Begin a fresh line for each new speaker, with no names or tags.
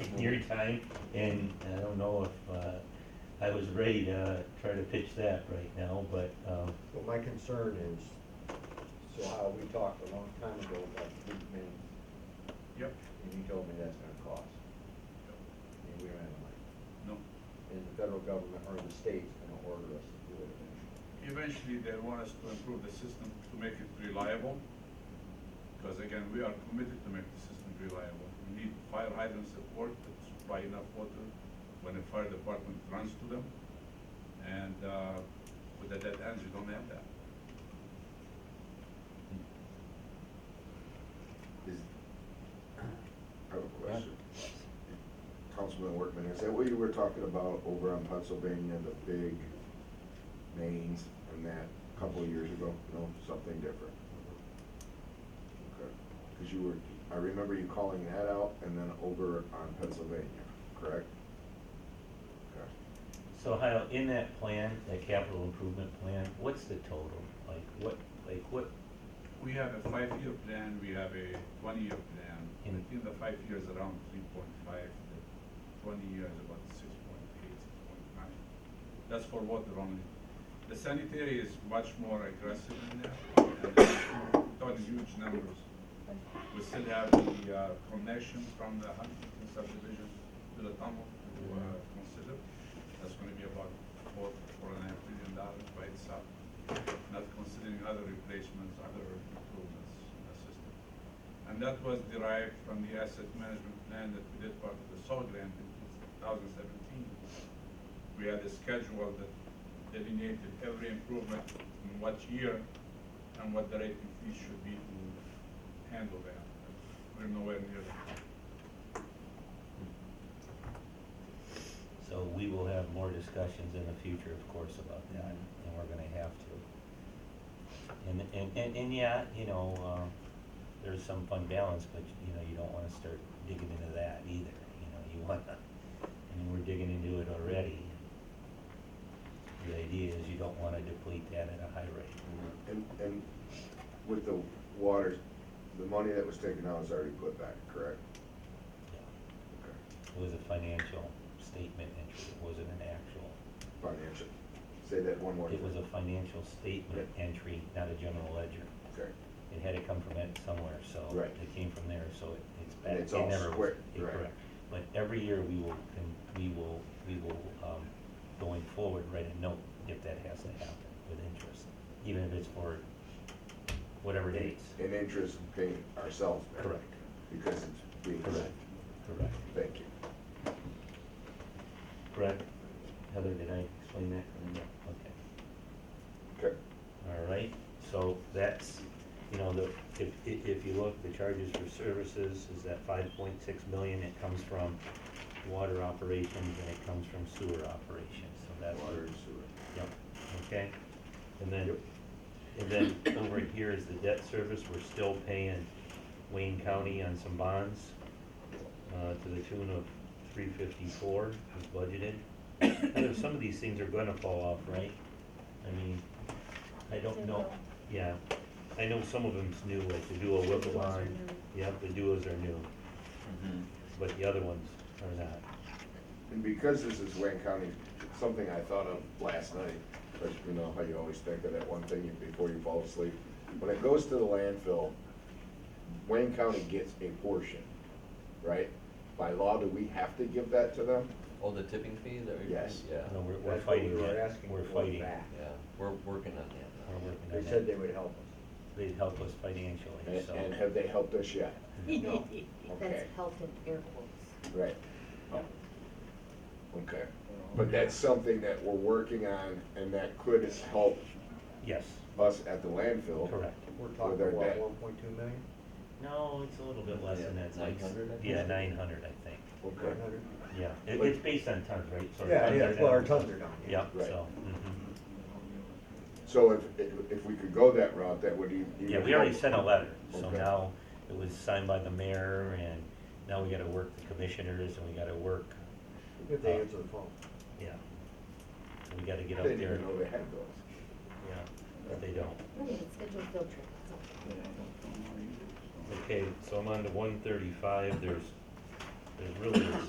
in your time, and I don't know if, uh, I was ready to try to pitch that right now, but, um,
Well, my concern is, so how we talked a long time ago about fleet maintenance,
Yep.
and you told me that's gonna cost, and we ran out.
No.
And the federal government or the state's gonna order us to do it eventually.
Eventually, they want us to improve the system to make it reliable. Because again, we are committed to make the system reliable. We need fire hydrant support to supply enough water when the fire department runs to them. And, uh, with the dead ends, you don't have that.
Is, I have a question. Councilman Workman, is that what you were talking about over on Pennsylvania, the big mains and that a couple of years ago? No, something different? Okay, because you were, I remember you calling that out and then over on Pennsylvania, correct? Okay.
so how, in that plan, that capital improvement plan, what's the total? Like, what, like, what,
We have a five-year plan, we have a twenty-year plan. I
Mm.
think the five years around three point five, the twenty years about six point eight, six point nine. That's for water only. The sanitary is much more aggressive in there, and not huge numbers. We still have the uh, connection from the Huntington subdivision to the tunnel to uh, consider. That's gonna be about four, four and a half billion dollars by itself, not considering other replacements, other improvements in the system. And that was derived from the asset management plan that we did part of the SAW grant in two thousand seventeen. We had a schedule that delineated every improvement in what year and what the rating fee should be to handle that. We're nowhere near that.
so we will have more discussions in the future, of course, about that, and we're gonna have to. And, and, and, and yeah, you know, um, there's some fund balance, but, you know, you don't wanna start digging into that either, you know, you wanna, I mean, we're digging into it already. The idea is you don't wanna deplete that at a high rate.
And, and with the water, the money that was taken out was already put back, correct?
Yeah.
Okay.
It was a financial statement entry, it wasn't an actual.
Financial, say that one more time.
It was a financial statement entry, not a general ledger.
Okay.
It had to come from it somewhere, so.
Right.
It came from there, so it- it's
And
back.
it's
It
all
never was-
square,
it-
right.
correct. But every year, we will, con- we will, we will, um, going forward, write a note if that has to happen with interest, even if it's for whatever dates.
in interest in paying ourselves back.
Correct.
Because it's being.
Correct, correct.
Thank you.
Correct. Heather, did I explain that? Okay.
Okay.
All right, so that's, you know, the, if, if, if you look, the charges for services is that five point six million, it comes from water operations and it comes from sewer operations, so that's.
Water and sewer.
Yep, okay, and then,
Yep.
and then over here is the debt service, we're still paying Wayne County on some bonds, uh, to the tune of three fifty-four, is budgeted. I know some of these things are gonna fall off, right? I mean, I don't know, yeah, I know some of them's new, like the Duo Whipple
Duos are
line,
new.
yep, the Duos are new,
Mm-hmm.
but the other ones are not.
And because this is Wayne County, something I thought of last night, but you know how you always think of that one thing before you fall asleep. When it goes to the landfill, Wayne County gets a portion, right? By law, do we have to give that to them?
Oh, the tipping fee that we?
Yes.
Yeah,
No, we're, we're
That's what
fighting
we were
that,
asking
we're
for
fighting,
back.
yeah, we're working on that
we're
now.
working on
They
that.
said they would help us.
they'd help us
And,
financially, so.
and have they helped us yet? No. Okay.
That's helped in air quotes.
Right. Okay.
Um,
But that's something that we're working on and that could help
Yes,
us at the landfill.
correct.
We're
With our
talking, what,
debt.
one point two million?
No, it's a little bit less than that. It's like-
900, I think.
Yeah, nine hundred, I think,
Okay.
yeah. It, it's based on tons, right? So our
Yeah,
tons
yeah,
are
well, our
down.
tons are down.
Yeah,
Right.
so, mhm.
So if, if, if we could go that route, that would e-, even.
yeah, we already sent a letter, so
Okay.
now it was signed by the mayor, and now we gotta work the commissioners, and we gotta work,
If they answer the phone.
yeah. So we gotta get
I
up
Didn't
there,
even
yeah,
know they had those.
but they don't.
Really, it's scheduled field trip, that's all.
Okay, so I'm on to one thirty-five, there's There really is